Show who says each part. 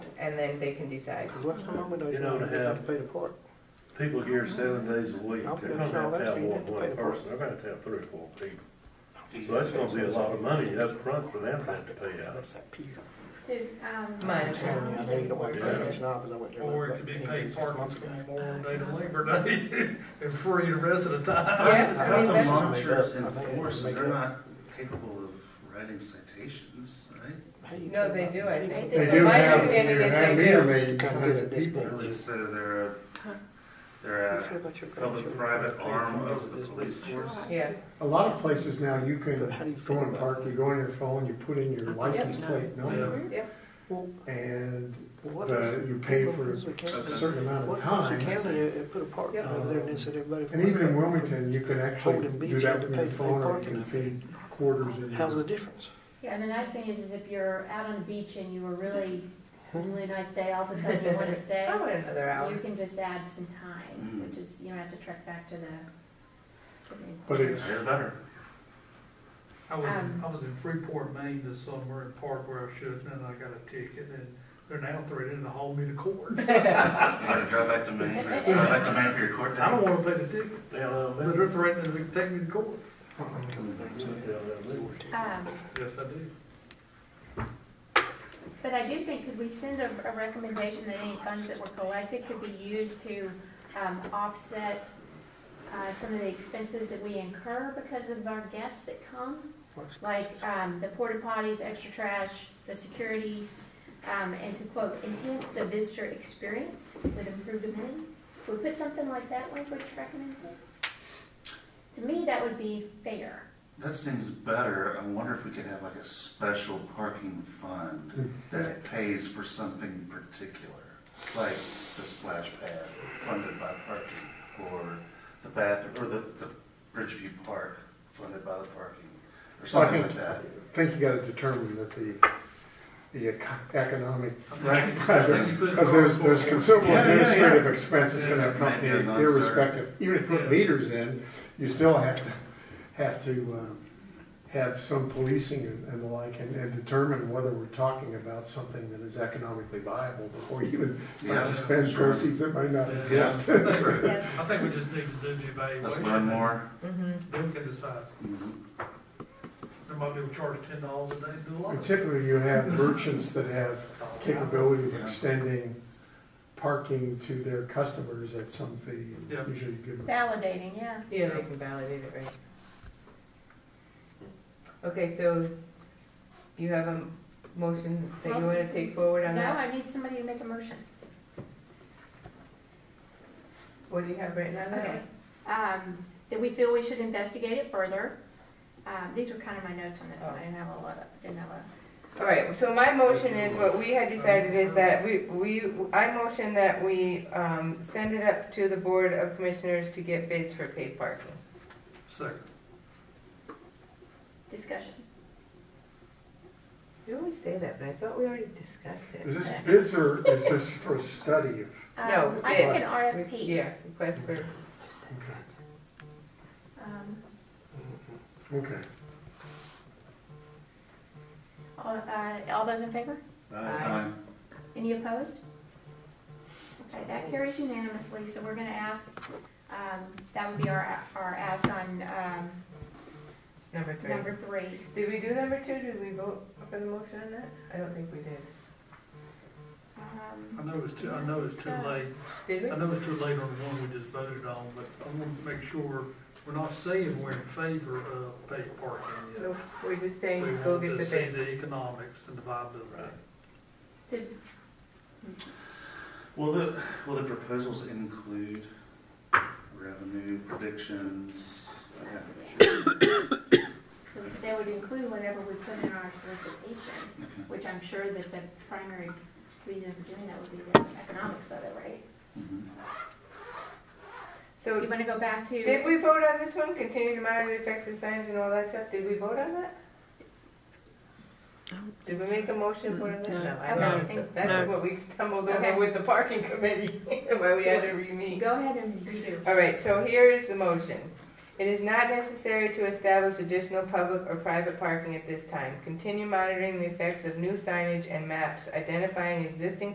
Speaker 1: and then they can decide.
Speaker 2: Because last time I went out
Speaker 3: You
Speaker 2: there,
Speaker 3: know,
Speaker 2: I
Speaker 3: to
Speaker 2: didn't have
Speaker 3: have-
Speaker 2: to pay the park.
Speaker 3: People here seven days a week,
Speaker 2: I'm
Speaker 3: they're
Speaker 2: gonna
Speaker 3: gonna have to
Speaker 2: tell
Speaker 3: have
Speaker 2: you, you
Speaker 3: one,
Speaker 2: have to pay
Speaker 3: one
Speaker 2: for it.
Speaker 3: person, they're gonna have to have three or four people. So that's gonna be a lot of money up front for them to have to pay out.
Speaker 2: That's that pier.
Speaker 4: Did, um.
Speaker 1: Mine.
Speaker 2: I'm telling you, I know you don't want to pay
Speaker 3: Yeah.
Speaker 2: this now because I went there.
Speaker 5: Or it
Speaker 2: like
Speaker 5: could be
Speaker 2: eight,
Speaker 5: paid
Speaker 2: six
Speaker 5: parking
Speaker 2: months ago.
Speaker 5: from Memorial Day to Labor Day, and free the rest of the time.
Speaker 1: Yeah,
Speaker 2: I
Speaker 1: I mean,
Speaker 2: thought
Speaker 1: that's-
Speaker 2: the mom-
Speaker 6: Monsters enforce, they're not capable of writing citations, right?
Speaker 2: How you
Speaker 1: No,
Speaker 2: feel
Speaker 1: they
Speaker 2: about-
Speaker 1: do,
Speaker 2: how
Speaker 1: I
Speaker 2: you
Speaker 1: think.
Speaker 2: feel
Speaker 7: They
Speaker 2: about-
Speaker 7: do
Speaker 1: My
Speaker 7: have,
Speaker 1: understanding
Speaker 7: you
Speaker 1: is
Speaker 7: have
Speaker 1: they do.
Speaker 7: meter readings,
Speaker 2: Kind of
Speaker 7: hundred
Speaker 2: visit this
Speaker 7: people.
Speaker 2: place.
Speaker 6: At least they're, they're, a-
Speaker 2: How you
Speaker 6: they're
Speaker 2: feel
Speaker 6: a
Speaker 2: about your grandchildren?
Speaker 6: public-private
Speaker 2: They come
Speaker 6: arm
Speaker 2: visit
Speaker 6: of the
Speaker 2: this
Speaker 6: police
Speaker 2: place.
Speaker 6: force.
Speaker 1: Yeah,
Speaker 7: A lot of places now, you can
Speaker 2: But how do you feel
Speaker 7: go in
Speaker 2: about-
Speaker 7: park, you go on your phone, you put in your license plate number,
Speaker 2: Well,
Speaker 7: and
Speaker 2: what
Speaker 7: The-
Speaker 2: if-
Speaker 7: Uh, you pay
Speaker 2: what
Speaker 7: for
Speaker 2: if we can't-
Speaker 7: a certain amount
Speaker 2: What
Speaker 7: of
Speaker 2: if we
Speaker 7: time.
Speaker 2: can't, they- they put a park
Speaker 1: Yep.
Speaker 2: over there and then said everybody.
Speaker 7: Um, And even in Wilmington, you can actually
Speaker 2: Holden Beach,
Speaker 7: do
Speaker 2: you have to
Speaker 7: that from
Speaker 2: pay
Speaker 7: your
Speaker 2: for their
Speaker 7: phone, or you
Speaker 2: parking
Speaker 7: can
Speaker 2: lot.
Speaker 7: feed quarters in
Speaker 2: How's the
Speaker 7: your.
Speaker 2: difference?
Speaker 4: Yeah, and the nice thing is, is if you're out on the beach and you were really, really nice day, all of a sudden you wanna stay,
Speaker 1: I want another
Speaker 4: you
Speaker 1: hour.
Speaker 4: can just add some
Speaker 7: Mm.
Speaker 4: time, which is, you don't have to trek back to the.
Speaker 7: But it's,
Speaker 6: They're better.
Speaker 5: I was, in
Speaker 4: Um,
Speaker 5: I was in Freeport, Maine this summer in park where I should, and then I got a ticket, and they're now threatening to haul me to court.
Speaker 6: You gotta drive back to Maine, for- drive back to Maine for your court
Speaker 5: I don't
Speaker 6: date.
Speaker 5: wanna pay the ticket,
Speaker 3: Down on
Speaker 5: but
Speaker 3: Middle,
Speaker 5: they're threatening to take me to court.
Speaker 7: Uh-huh.
Speaker 3: down on Middle.
Speaker 4: Um,
Speaker 5: Yes, I do.
Speaker 4: but I do think, could we send a, a recommendation that any funds that were collected could be used to, um, offset, uh, some of the expenses that we incur because of our guests that come? like um, the porta potties, extra trash, the securities, um, and to quote, enhance the visitor experience with improved amenities. We put something like that language recommended. To me, that would be fair.
Speaker 6: That seems better. I wonder if we could have like a special parking fund that pays for something particular, like the splash pad funded by parking, or the bath, or the, the Bridgeview Park funded by the parking, or
Speaker 7: so I
Speaker 6: something
Speaker 7: think,
Speaker 6: like that.
Speaker 7: I think you gotta determine that the, the eco- economic,
Speaker 5: Right.
Speaker 7: because there's, there's considerable
Speaker 6: Yeah, yeah, yeah.
Speaker 7: administrative expenses gonna
Speaker 6: Yeah, it might
Speaker 7: accompany
Speaker 6: be a
Speaker 7: it
Speaker 6: non-starter.
Speaker 7: irrespective. Even if you
Speaker 5: Yeah.
Speaker 7: put meters in, you still have to, have to, um, have some policing and and the like, and, and determine whether we're talking about something that is economically viable before you even start
Speaker 6: Yeah,
Speaker 7: to spend
Speaker 6: sure.
Speaker 7: proceeds that might not
Speaker 5: Yeah.
Speaker 7: exist.
Speaker 4: Yes.
Speaker 5: I think we just need to do the
Speaker 6: Let's
Speaker 5: evaluation.
Speaker 6: learn more.
Speaker 1: hmm
Speaker 5: Then we can decide.
Speaker 6: Mhm.
Speaker 5: Somebody will charge ten dollars a day to do a lot of it.
Speaker 7: Particularly, you have merchants that have capability of
Speaker 6: Yeah.
Speaker 7: extending parking to their customers at some fee,
Speaker 5: Yeah.
Speaker 7: and usually you give them.
Speaker 4: Validating, yeah.
Speaker 1: Yeah, they can validate it, right? Okay, so you have a motion that you want to take forward on
Speaker 4: No,
Speaker 1: that?
Speaker 4: I need somebody to make a motion.
Speaker 1: What do you have written on
Speaker 4: Okay.
Speaker 1: that?
Speaker 4: Um, that we feel we should investigate it further. Um, these were kind of my notes on this one. I didn't have a lot of, didn't have a.
Speaker 1: All right, so my motion is, what we had decided is that we, we, I motion that we, um, send it up to the Board of Commissioners to get bids for paid parking.
Speaker 5: Second.
Speaker 4: Discussion.
Speaker 1: You always say that, but I thought we already discussed
Speaker 7: Is
Speaker 1: it.
Speaker 7: this bids or is this for a study of?
Speaker 1: No,
Speaker 4: Um, I think an
Speaker 1: bids.
Speaker 4: RFP.
Speaker 1: Yeah, request for,
Speaker 4: Um,
Speaker 7: Okay.
Speaker 4: All, uh, all those in favor?
Speaker 1: Aye.
Speaker 6: Fine.
Speaker 4: Any opposed? Okay, that carries unanimously, so we're gonna ask, um, that would be our, our ask on, um,
Speaker 1: number three.
Speaker 4: number three.
Speaker 1: Did we do number two? Did we vote for the motion on that? I don't think we did.
Speaker 5: I
Speaker 4: Um,
Speaker 5: know it's too, I know it's too late.
Speaker 1: Did we?
Speaker 5: I know it's too late on the one we just voted on, but I want to make sure we're not saying we're in favor of paid parking yet.
Speaker 1: No, we're just
Speaker 5: We
Speaker 1: saying, go
Speaker 5: want
Speaker 1: get
Speaker 5: to
Speaker 1: the
Speaker 5: see
Speaker 1: bid.
Speaker 5: the economics and the viability.
Speaker 4: did-
Speaker 6: Will the, will the proposals include revenue predictions?
Speaker 4: That would include whatever we put in our solicitation, which I'm sure that the primary reason for doing that would be the economics of it, right?
Speaker 6: Mhm.
Speaker 4: You
Speaker 1: So,
Speaker 4: wanna go back to?
Speaker 1: did we vote on this one? Continue to monitor the effects of signs and all that stuff? Did we vote on that? Did we make a motion for that? No, I don't think so. That's what we stumbled
Speaker 4: Okay.
Speaker 1: over with the parking committee, why we had to re-meet.
Speaker 4: Go ahead and redo.
Speaker 1: All right, so here is the motion. It is not necessary to establish additional public or private parking at this time. Continue monitoring the effects of new signage and maps, identifying existing